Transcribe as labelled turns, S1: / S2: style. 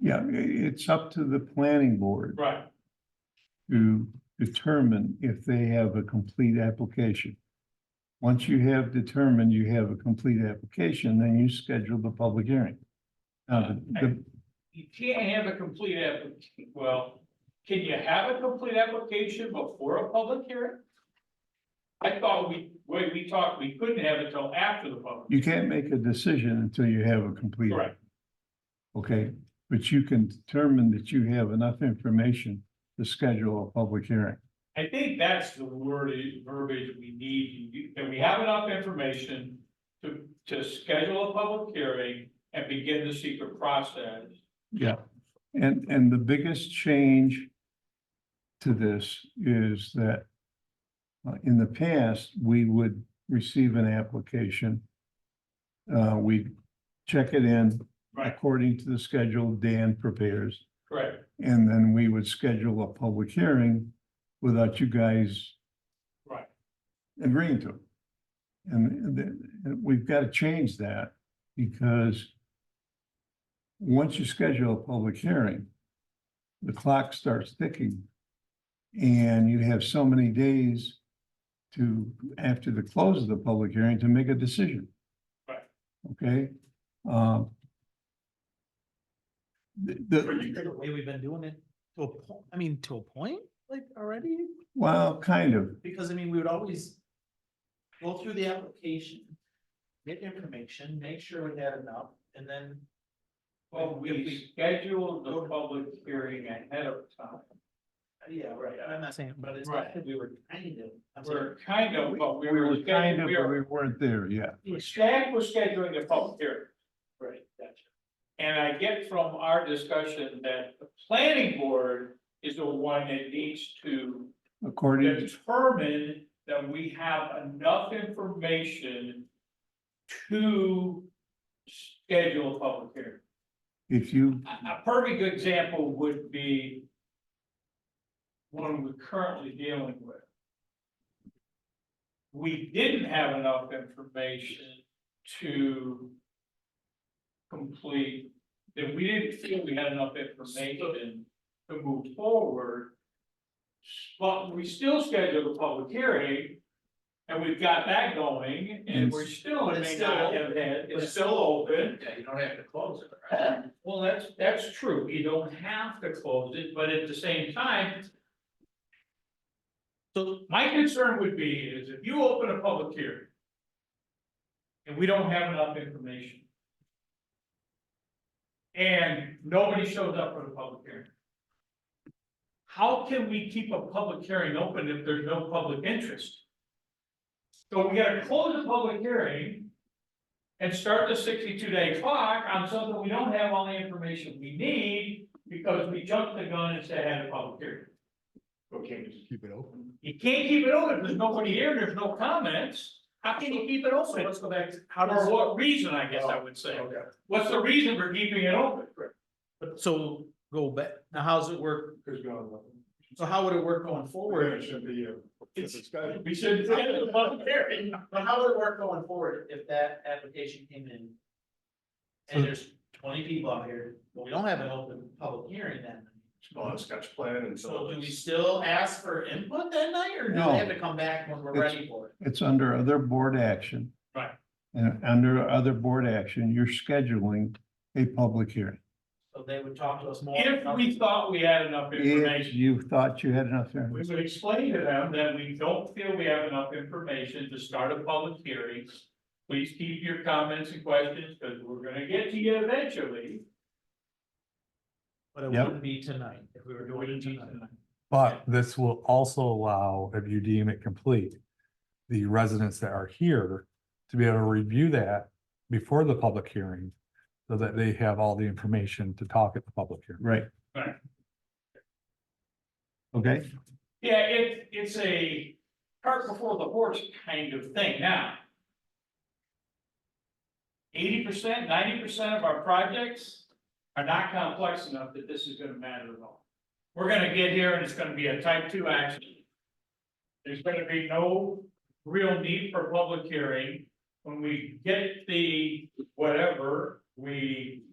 S1: Yeah, i- it's up to the planning board
S2: Right,
S1: to determine if they have a complete application. Once you have determined you have a complete application, then you schedule the public hearing. Uh, the-
S2: you can't have a complete application, well, can you have a complete application before a public hearing? I thought we, way we talked, we couldn't have it till after the public.
S1: you can't make a decision until you have a complete.
S2: Correct,
S1: Okay, but you can determine that you have enough information to schedule a public hearing.
S2: I think that's the word, verbiage we need, You- that we have enough information to, to schedule a public hearing and begin the secret process.
S1: Yeah. And, and the biggest change to this is that uh, in the past, we would receive an application. Uh, we'd check it in
S2: Right.
S1: according to the schedule Dan prepares,
S2: Correct,
S1: and then we would schedule a public hearing without you guys
S2: right,
S1: agreeing to it. And th- th- we've got to change that because once you schedule a public hearing, the clock starts ticking. And you have so many days to, after the close of the public hearing, to make a decision.
S2: Right.
S1: Okay? Um, The, the,
S3: The way we've been doing it to a point, I mean, to a point, like already,
S1: well, kind of,
S3: because I mean, we would always. Go through the application, get information, make sure we had enough, and then.
S2: well, we scheduled the public hearing ahead of time.
S3: Yeah, right, I'm not saying, but it's
S2: Right.
S3: not that we were kind of. I'm saying-
S2: We're kind of, but we
S1: we
S2: were.
S1: were kind of,
S2: we
S1: but
S2: were-
S1: we weren't there yet.
S2: Staff was scheduling the public hearing,
S3: Right, gotcha.
S2: and I get from our discussion that the planning board is the one that needs to
S1: According to
S2: determine that we have enough information to schedule a public hearing.
S1: If you,
S2: A, a perfect example would be one we're currently dealing with. We didn't have enough information to complete, that we didn't feel we had enough information to move forward. But we still scheduled a public hearing, and we've got that going, and we're still,
S3: But
S2: may
S3: it's
S2: not
S3: still-
S2: have had,
S3: but
S2: it's
S3: it's
S2: still open.
S3: Yeah, you don't have to close it,
S2: Well, that's, that's true, you don't have to close it, but at the same time,
S3: So,
S2: my concern would be is if you open a public hearing. And we don't have enough information. And nobody shows up for the public hearing. How can we keep a public hearing open if there's no public interest? So we gotta close the public hearing. And start the sixty-two day clock on something we don't have all the information we need, because we jumped the gun and said had a public hearing. Okay,
S4: Keep it open.
S2: you can't keep it open, there's nobody here, there's no comments, how can you keep it
S3: so
S2: open?
S3: let's go back to, how does,
S2: For what reason, I guess I would say, what's the reason for keeping it open?
S3: but so go back, now how's it work?
S4: There's gone.
S3: So how would it work going forward?
S4: be you.
S3: It's-
S2: We should have a public hearing.
S3: But how would it work going forward if that application came in?
S1: Hmm.
S3: And there's twenty people out here, but we don't have an open public hearing then.
S4: Small sketch plan and
S3: So do we still ask for input that night or do
S1: No.
S3: they have to come back when we're
S1: It's-
S3: ready for it?
S1: It's under other board action.
S2: Right.
S1: And under other board action, you're scheduling a public hearing.
S3: So they would talk to us more.
S2: If we thought we had enough
S1: If
S2: information,
S1: you thought you had enough,
S2: we
S1: there,
S2: would explain to them that we don't feel we have enough information to start a public hearing. Please keep your comments and questions, because we're gonna get to you eventually.
S3: But it
S1: Yep.
S3: wouldn't be tonight if we were doing it tonight.
S5: But this will also allow, if you deem it complete, the residents that are here to be able to review that before the public hearing, so that they have all the information to talk at the public hearing.
S1: right?
S2: Right.
S1: Okay,
S2: Yeah, it, it's a cart before the horse kind of thing now. Eighty percent, ninety percent of our projects are not complex enough that this is gonna matter at all. We're gonna get here and it's gonna be a type two action. There's gonna be no real need for public hearing. When we get the whatever, we